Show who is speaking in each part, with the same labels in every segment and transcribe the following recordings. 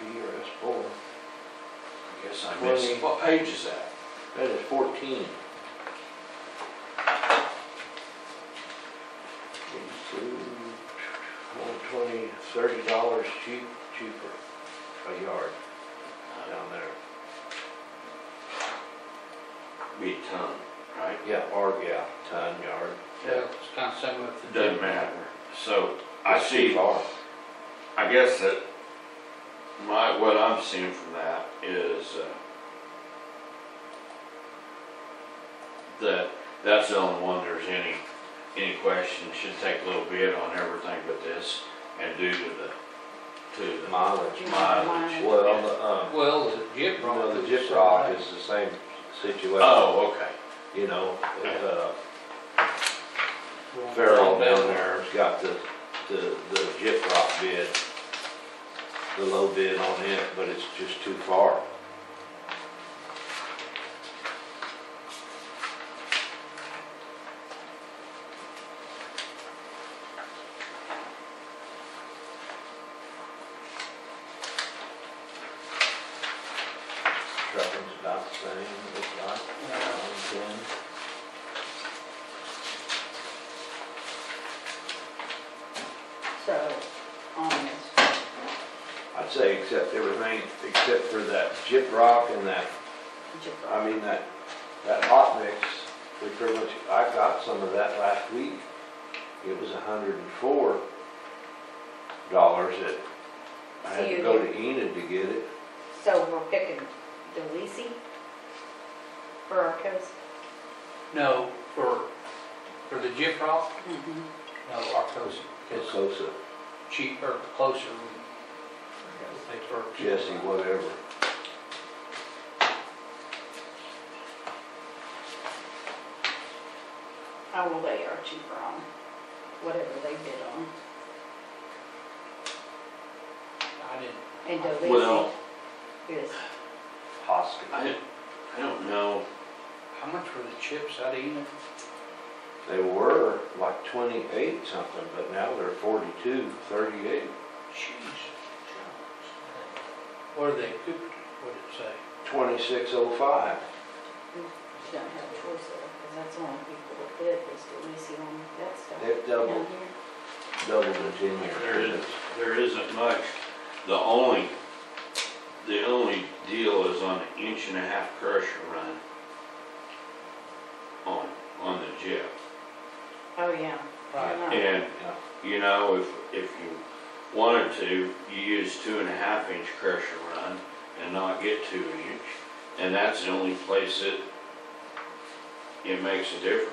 Speaker 1: B or S four.
Speaker 2: I guess I missed,
Speaker 1: Twenty.
Speaker 2: what page is that?
Speaker 1: That is fourteen. One twenty, thirty dollars cheap, cheaper a yard down there.
Speaker 2: Be a ton, right?
Speaker 1: Yeah, or, yeah, ton yard.
Speaker 3: Yeah, it's kind of similar to.
Speaker 2: It Doesn't matter. So I
Speaker 1: It's
Speaker 2: see,
Speaker 1: cheap R.
Speaker 2: I guess that my, what I'm seeing from that is, uh, that, that's the only one there's any, any question, should take a little bit on everything but this, and due to the, to the
Speaker 1: Mileage.
Speaker 4: um,
Speaker 2: mileage.
Speaker 1: Well, the, um,
Speaker 3: Well, the jip rock.
Speaker 1: well, the
Speaker 3: is
Speaker 1: jip
Speaker 3: the
Speaker 1: rock
Speaker 3: same.
Speaker 1: is the same situation.
Speaker 2: Oh, okay.
Speaker 1: You know, uh,
Speaker 3: Well,
Speaker 1: Farrell down there's got the, the, the jip rock bid, the low bid on it, but it's just too far. Trucking's about the same, it's like,
Speaker 3: Yeah.
Speaker 1: um, ten.
Speaker 4: So, on this,
Speaker 1: I'd say except everything, except for that jip rock and that,
Speaker 4: Jipper.
Speaker 1: I mean, that, that hot mix, we pretty much, I got some of that last week. It was hundred and four dollars that I had to go to Enid to get it.
Speaker 4: So we're picking Delisi for our coast?
Speaker 3: No, for, for the jip rock, no, Arcos
Speaker 1: It's
Speaker 3: is
Speaker 1: close to
Speaker 3: cheaper, closer, we pay for. jip
Speaker 1: Jesse,
Speaker 3: rock.
Speaker 1: whatever.
Speaker 4: I will lay our cheaper on, whatever they bid on.
Speaker 3: I didn't,
Speaker 4: And
Speaker 2: Well-
Speaker 4: Delisi is,
Speaker 1: Hoskins.
Speaker 2: I, I don't know.
Speaker 3: how much were the chips out of Enid?
Speaker 1: They were like twenty-eight something, but now they're forty-two, thirty-eight,
Speaker 3: Jeez. What are they, Cooper, what'd it say?
Speaker 1: twenty-six oh five.
Speaker 4: she don't have a choice there, because that's the only people that bid was Delisi on that stuff.
Speaker 1: They've doubled,
Speaker 4: down here.
Speaker 1: doubled in ten years.
Speaker 2: There is, there isn't much. The only, the only deal is on the inch and a half crusher run. On, on the jet.
Speaker 4: Oh, yeah.
Speaker 3: Right.
Speaker 4: Yeah.
Speaker 2: And, you know, if, if you wanted to, you use two and a half inch crusher run and not get two inch. And that's the only place that it makes a difference,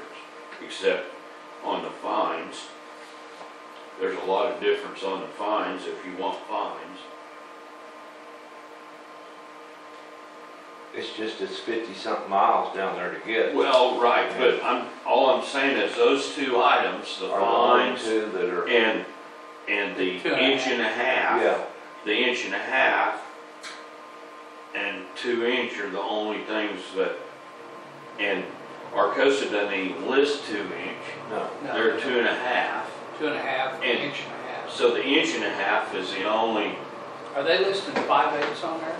Speaker 2: except on the fines. There's a lot of difference on the fines if you want fines.
Speaker 1: It's just it's fifty something miles down there to get.
Speaker 2: Well, right, but I'm, all I'm saying is those two items, the
Speaker 1: Are the only
Speaker 2: fines
Speaker 1: two that are,
Speaker 2: and, and the
Speaker 3: Two and a
Speaker 2: inch and a half.
Speaker 1: yeah,
Speaker 2: the inch and a half and two inch are the only things that, and Arcosa doesn't even list two inch.
Speaker 1: no.
Speaker 3: No,
Speaker 2: They're two and a half.
Speaker 3: Two and a half, an
Speaker 2: And-
Speaker 3: inch and a half.
Speaker 2: So the inch and a half is the only,
Speaker 3: Are they listing five eighths on there?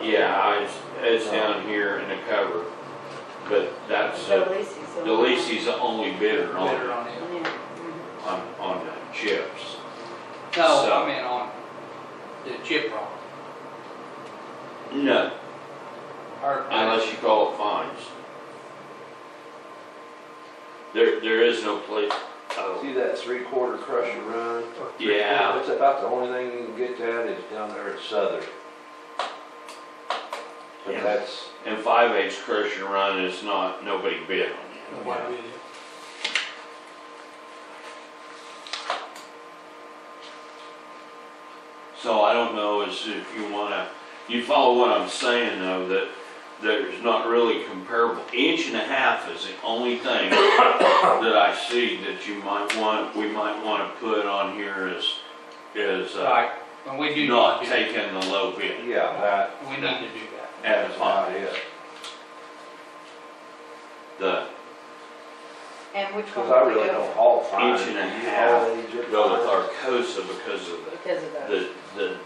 Speaker 2: yeah, it's, it's down here in the cover. But that's, the
Speaker 4: Delisi's. on-
Speaker 2: Delisi's the only bidder
Speaker 3: Better
Speaker 2: on,
Speaker 3: on it.
Speaker 4: Yeah. mhm.
Speaker 2: on, on the chips.
Speaker 3: No,
Speaker 2: So-
Speaker 3: I meant on the chip rock.
Speaker 2: No,
Speaker 3: Or-
Speaker 2: unless you call it fines. There, there is no place, oh,
Speaker 1: See that three quarter crusher run?
Speaker 2: yeah.
Speaker 1: It's about the only thing you can get that is down there at Southern. But
Speaker 2: Yeah.
Speaker 1: that's,
Speaker 2: And five eighths crusher run is not, nobody bid on
Speaker 3: Why would it?
Speaker 2: it. So I don't know is if you wanna, you follow what I'm saying though, that there's not really comparable. Inch and a half is the only thing that I see that you might want, we might wanna put on here is, is uh,
Speaker 3: Right, and we do
Speaker 2: not
Speaker 3: need to do
Speaker 2: taking the low bid
Speaker 1: yeah, that,
Speaker 3: that. We need to do that.
Speaker 2: at a
Speaker 1: that's about
Speaker 2: fine.
Speaker 1: it.
Speaker 2: The,
Speaker 4: And which one
Speaker 1: Cause I
Speaker 4: would we
Speaker 1: really
Speaker 4: go
Speaker 1: don't haul fine.
Speaker 2: Inch and a half
Speaker 1: You haul any jip
Speaker 2: go with
Speaker 1: fine?
Speaker 2: Arcosa because of
Speaker 4: for? Because of
Speaker 2: the,
Speaker 4: the.
Speaker 2: the, the